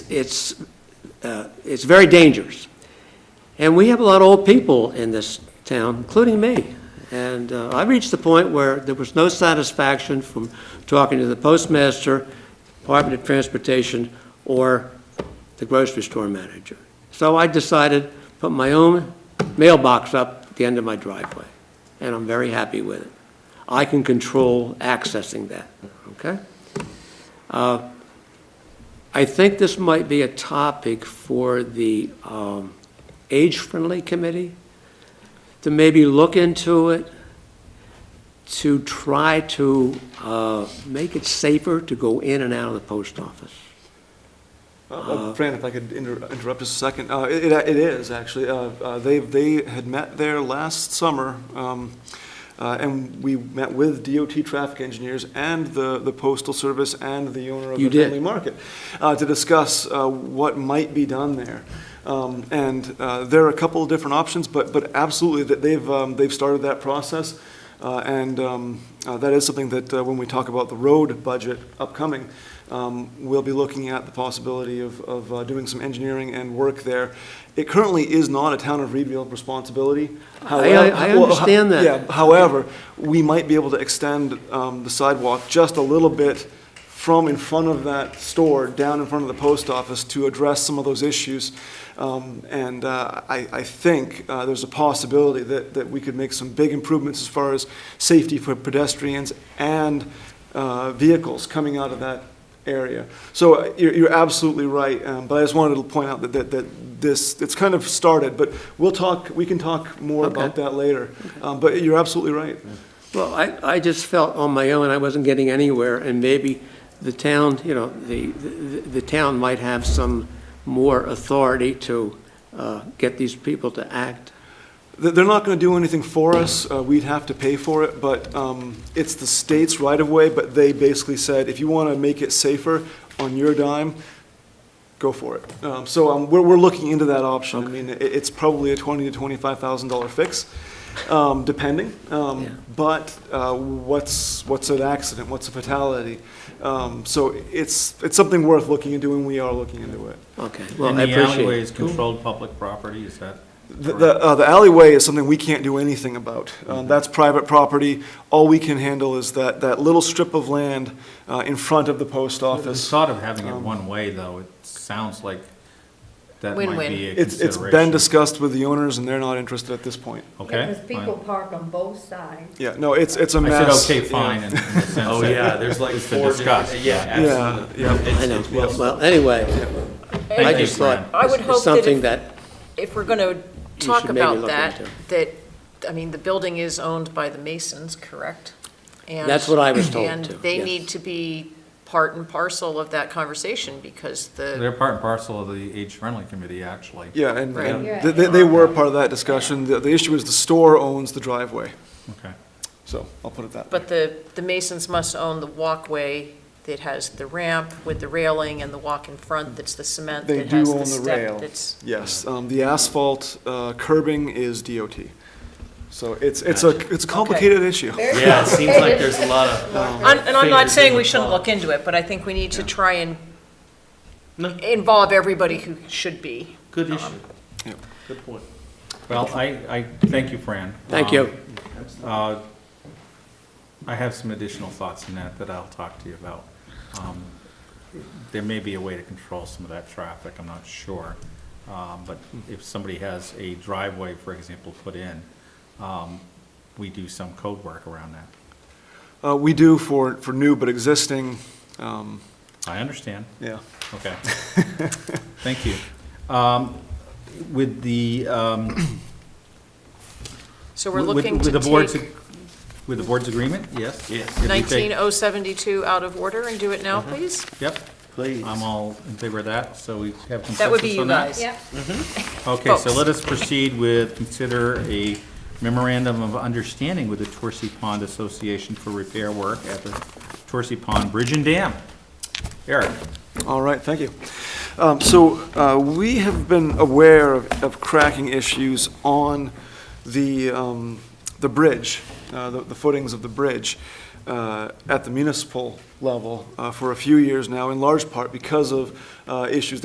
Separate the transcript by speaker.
Speaker 1: it's, uh, it's very dangerous. And we have a lot of old people in this town, including me. And uh, I reached the point where there was no satisfaction from talking to the postmaster, Department of Transportation, or the grocery store manager. So I decided, put my own mailbox up at the end of my driveway, and I'm very happy with it. I can control accessing that, okay? Uh, I think this might be a topic for the um, age-friendly committee to maybe look into it, to try to uh, make it safer to go in and out of the post office.
Speaker 2: Uh, uh, Fran, if I could inter- interrupt just a second, Uh, it it- it is, actually. Uh, uh, They they had met there last summer, um, uh, and we met with DOT traffic engineers and the the Postal Service and the owner of
Speaker 1: You
Speaker 2: the
Speaker 1: did.
Speaker 2: Friendly Market uh, to discuss uh, what might be done there. Um, And uh, there are a couple of different options, but but absolutely, that they've um, they've started that process. Uh, And um, uh, that is something that, uh, when we talk about the road budget upcoming, um, we'll be looking at the possibility of, of uh, doing some engineering and work there. It currently is not a town of Reedville
Speaker 1: I-
Speaker 2: responsibility.
Speaker 1: I- I
Speaker 2: However- well,
Speaker 1: understand that.
Speaker 2: Yeah, however, we might be able to extend um, the sidewalk just a little bit from in front of that store, down in front of the post office, to address some of those issues. Um, And uh, I, I think uh, there's a possibility that, that we could make some big improvements as far as safety for pedestrians and uh, vehicles coming out of that area. So uh, you're, you're absolutely right, um, but I just wanted to point out that, that, that this, it's kind of started, but we'll talk, we can talk more about
Speaker 1: Okay.
Speaker 2: that later. Um, But you're absolutely right.
Speaker 1: Well, I, I just felt on my own, I wasn't getting anywhere, and maybe the town, you know, the, the the town might have some more authority to uh, get these people to act.
Speaker 2: They- They're not going to do anything for us. uh, We'd have to pay for it, but um, it's the state's right-of-way, but they basically said, if you want to make it safer on your dime, go for it. Um, So um, we're, we're looking into that option. I mean, it- it's probably a twenty to twenty-five thousand dollar fix, um, depending. Um,
Speaker 1: Yeah.
Speaker 2: But uh, what's, what's an accident? What's a fatality? Um, So it's, it's something worth looking into, and we are looking into it.
Speaker 1: Okay, well,
Speaker 3: And
Speaker 1: I
Speaker 3: the alleyway
Speaker 1: appreciate it.
Speaker 3: is controlled public property, is that?
Speaker 2: The-
Speaker 3: correct?
Speaker 2: The, uh, the alleyway is something we can't do anything about.
Speaker 3: Mm-hmm.
Speaker 2: Um, That's private property. All we can handle is that, that little strip of land uh, in front of the post
Speaker 3: The
Speaker 2: office. Um,
Speaker 3: thought of having it one way, though, it sounds like that might
Speaker 4: Win-win.
Speaker 3: be a
Speaker 2: It's,
Speaker 3: consideration.
Speaker 2: it's been discussed with the owners, and they're not interested at this point.
Speaker 3: Okay.
Speaker 5: Because people
Speaker 3: fine.
Speaker 5: park on both sides.
Speaker 2: Yeah, no, it's, it's a
Speaker 3: I
Speaker 2: mess.
Speaker 3: said, okay,
Speaker 2: Yeah.
Speaker 3: fine, in in the sense that.
Speaker 6: Oh, yeah, there's like
Speaker 3: It's been
Speaker 6: four
Speaker 3: discussed,
Speaker 6: different- Yeah,
Speaker 2: Yeah,
Speaker 6: absolutely.
Speaker 2: yeah.
Speaker 6: It's-
Speaker 1: I know,
Speaker 6: it's
Speaker 1: well,
Speaker 6: been-
Speaker 1: well, anyway, I
Speaker 3: Thank you,
Speaker 1: just thought,
Speaker 3: Fran.
Speaker 4: I would
Speaker 1: it's
Speaker 4: hope that
Speaker 1: something
Speaker 4: if-
Speaker 1: that,
Speaker 4: If we're going to talk
Speaker 1: should maybe
Speaker 4: about
Speaker 1: look
Speaker 4: that,
Speaker 1: into.
Speaker 4: that, I mean, the building is owned by the Masons, correct? And-
Speaker 1: That's what I was told,
Speaker 4: And
Speaker 1: too,
Speaker 4: they
Speaker 1: yes.
Speaker 4: need to be part and parcel of that conversation because the,
Speaker 3: They're part and parcel of the Age Friendly Committee, actually.
Speaker 2: Yeah, and,
Speaker 4: Right.
Speaker 2: and
Speaker 5: Yeah.
Speaker 2: they- they, they were part of that discussion. The, the issue is the store owns the driveway,
Speaker 3: Okay.
Speaker 2: so I'll put it that way.
Speaker 4: but the, the Masons must own the walkway that has the ramp with the railing and the walk in front that's the cement
Speaker 2: They
Speaker 4: that has
Speaker 2: do
Speaker 4: the
Speaker 2: own the rail.
Speaker 4: step that's.
Speaker 2: Yes, um, the asphalt uh, curbing is DOT. So it's, it's a, it's a complicated issue.
Speaker 6: Yeah, it seems like there's a lot of. um,
Speaker 4: And and I'm not
Speaker 6: Fingers
Speaker 4: saying
Speaker 6: in
Speaker 4: we
Speaker 6: the
Speaker 4: shouldn't
Speaker 6: pie.
Speaker 4: look into it, but I think we need to try and
Speaker 6: No,
Speaker 4: involve everybody who should be.
Speaker 6: good issue.
Speaker 2: Yeah.
Speaker 6: Good point.
Speaker 3: Well, I, I, thank you, Fran.
Speaker 1: thank
Speaker 3: Um,
Speaker 1: you.
Speaker 3: Uh, I have some additional thoughts on that that I'll talk to you about. Um, There may be a way to control some of that traffic, I'm not sure. Um, But if somebody has a driveway, for example, put in, um, we do some code work around that.
Speaker 2: Uh, We do for, for new but existing, um,
Speaker 3: I understand.
Speaker 2: yeah.
Speaker 3: Okay. Thank you. Um, With the, um,
Speaker 4: So we're
Speaker 3: with-
Speaker 4: looking
Speaker 3: with
Speaker 4: to
Speaker 3: the board's
Speaker 4: take oh-
Speaker 3: ag- With the board's agreement, yes?
Speaker 6: Yes.
Speaker 3: If we take-
Speaker 4: 19072 out of order and do it now, please?
Speaker 3: Yep.
Speaker 6: Please.
Speaker 3: I'm all in favor of that, so we have consensus on that?
Speaker 4: That would be you guys.
Speaker 5: Yep.
Speaker 3: Okay, so
Speaker 4: Folks.
Speaker 3: let us proceed with, consider a memorandum of understanding with the Torsi Pond Association for repair work at the Torsi Pond Bridge and Dam. Eric?
Speaker 2: All right, thank you. Um, So uh, we have been aware of of cracking issues on the, um, the bridge, uh, the the footings of the bridge uh, at the municipal level uh, for a few years now, in large part because of uh, issues